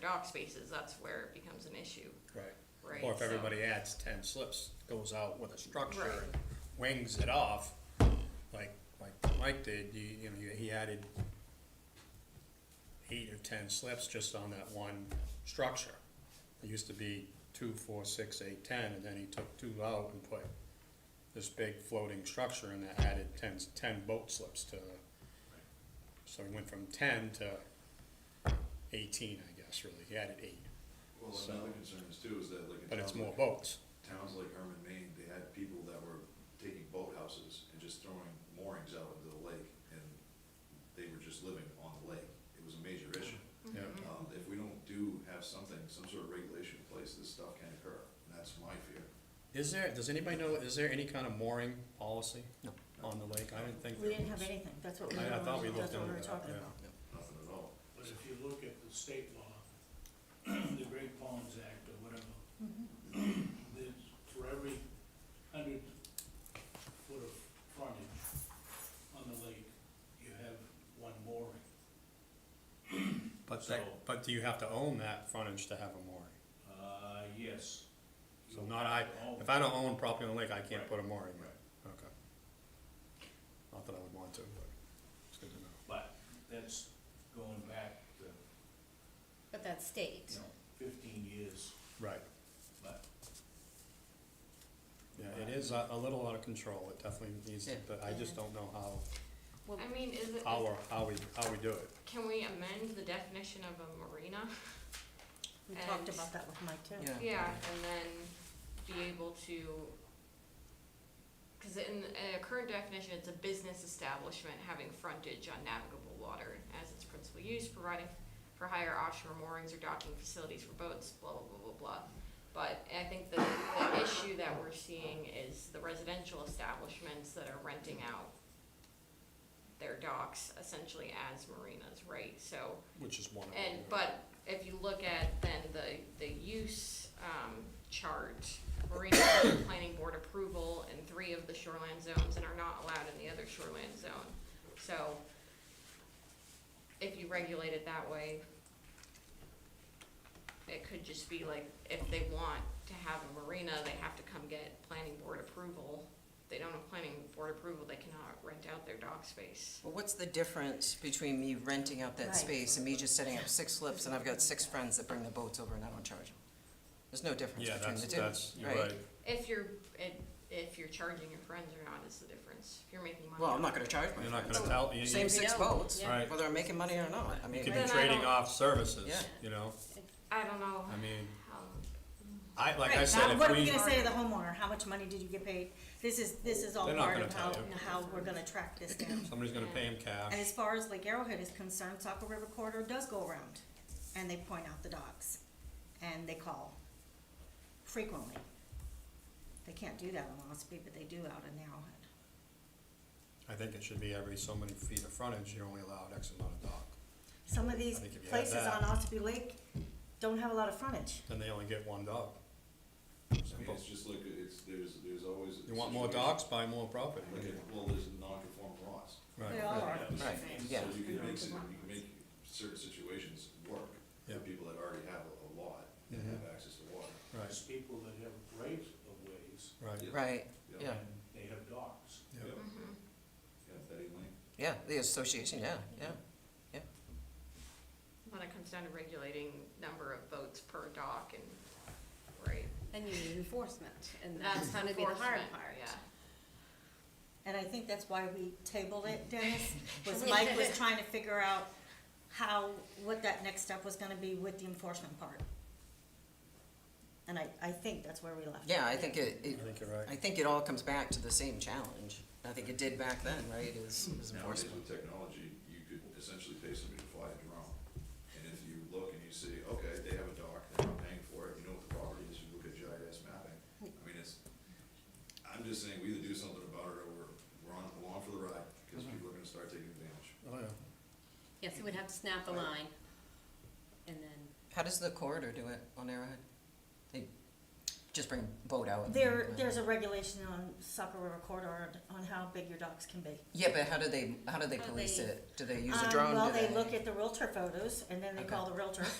dog spaces, that's where it becomes an issue, Right. right? Or if So- everybody adds ten slips, goes out with a structure Right. and wings it off, like, like Mike did, you, you know, he added eight or ten slips just on that one structure. It used to be two, four, six, eight, ten, and then he took two out and put this big floating structure and that added ten, ten boat slips to, so he went from ten to eighteen, I guess, really, he added eight, Well, So- another concern is too, is that like in but it's towns more like, boats. towns like Herman, Maine, they had people that were taking boathouses and just throwing moorings out into the lake, and they were just living on the lake. It was a major issue. Yeah. Um, if we don't do have something, some sort of regulation in place, this stuff can occur, and that's my fear. Is there, does anybody know, is there any kind of mooring policy on the lake? I didn't think We there didn't have was. anything, that's what we I- were, I thought we that's looked what into we were that, talking yeah. about. Nothing at all. But if you look at the state law, the Great Palms Act or whatever, there's for every hundred foot of frontage on the lake, you have one mooring. But that, So- but do you have to own that frontage to have a mooring? Uh, yes. So not I, Oh, if I don't own property on the lake, I can't Right. put a mooring Right. in. Okay. Not that I would want to, but it's good to know. But that's going back to, But that's state. you know, fifteen years, Right. but Yeah, it is a, a little out of control. It definitely needs, to- but I just don't know how, I mean, is it, how, or- how we, how we do it. can we amend the definition of a marina? We And- talked about that with Mike too. Yeah, and then be able to, cause in, in a current definition, it's a business establishment having frontage on navigable water as its principal use, providing for higher offshore moorings or docking facilities for boats, blah, blah, blah, blah, blah. But I think the, the issue that we're seeing is the residential establishments that are renting out their docks essentially as marinas, right? So, Which is one of them. and, yeah. but if you look at then the, the use, um, chart, Marina Bay Planning Board approval in three of the shoreline zones and are not allowed in the other shoreline zone. So if you regulate it that way, it could just be like, if they want to have a marina, they have to come get planning board approval. If They don't have planning board approval, they cannot rent out their dock space. Well, what's the difference between me renting out Right. that space and me just setting up six slips and I've got six friends that bring the boats over and I don't charge them? There's no difference Yeah, between that's, the that's, two, you're right. right? If you're, if- if you're charging your friends or not is the difference. If you're making money. Well, I'm not off gonna it. charge my You're not friends. gonna tell, you, you Same six Yeah. boats, Right. whether I'm making money or not, I you mean, could Then be I trading don't- off services, Yeah. you know? I don't know I mean, how, I, like I Right, said, now, if we. what are we gonna say to the homeowner, how much money did you get paid? This is, this is all They're not part gonna of tell how, you. how we're gonna track this down. Somebody's gonna pay him And cash. as far as Lake Arrowhead is concerned, Saco River Corridor does go around, and they point out the docks, and they call frequently. They can't do that in Mosby, but they do out in Arrowhead. I think it should be every so many feet of frontage, you're only allowed X amount of dock. Some of these I think if you had places that- on Ossipee Lake don't have a lot of frontage. Then they only get one dock. I mean, it's just like, it's, there's, there's always. You want more docks, situations buy more property. Like, a- well, there's non-conforming laws. They Right. all are. Right, yeah. So you can make, it- you can make certain situations work Yeah. for people that already have a a lot and Mhm. have access to water. Right, there's people that have rights of ways right. right, yeah, and they have docks. Yeah. mm-hmm. Yeah, Betty Lane. yeah, the association, yeah, yeah. when it comes down to regulating number of votes per dock and, right? And you need enforcement, and that's gonna be the hard enforcement, part. Yeah. And I think that's why we tabled it, Dennis, was Mike was trying to figure out how, what that next step was gonna be with the enforcement part. And I, I think that's where we left. it. Yeah, I think it, I it, think you're right. I think it all comes back to the same challenge. I think it did back then, right, is is Nowadays enforcement. with technology, you could essentially pay somebody to fly a drone. And if you look and you see, okay, they have a dock, they're not paying for it, you know what the property is, you look at GIS mapping. I mean, it's, I'm just saying, we either do something about it or we're, we're on, along for the ride, because Mm-hmm. people are gonna start taking advantage. Oh, yeah. Yes, we'd have to snap the line, and then, How does the corridor do it on Arrowhead? They just bring boat out? and- There, there's a regulation on Saco River corridor on how big your docks can be. Yeah, but how do they, how do they How police they- it? Do they use a Um, drone? Well, Do they look at the realtor photos, and then they Okay. call the realtor,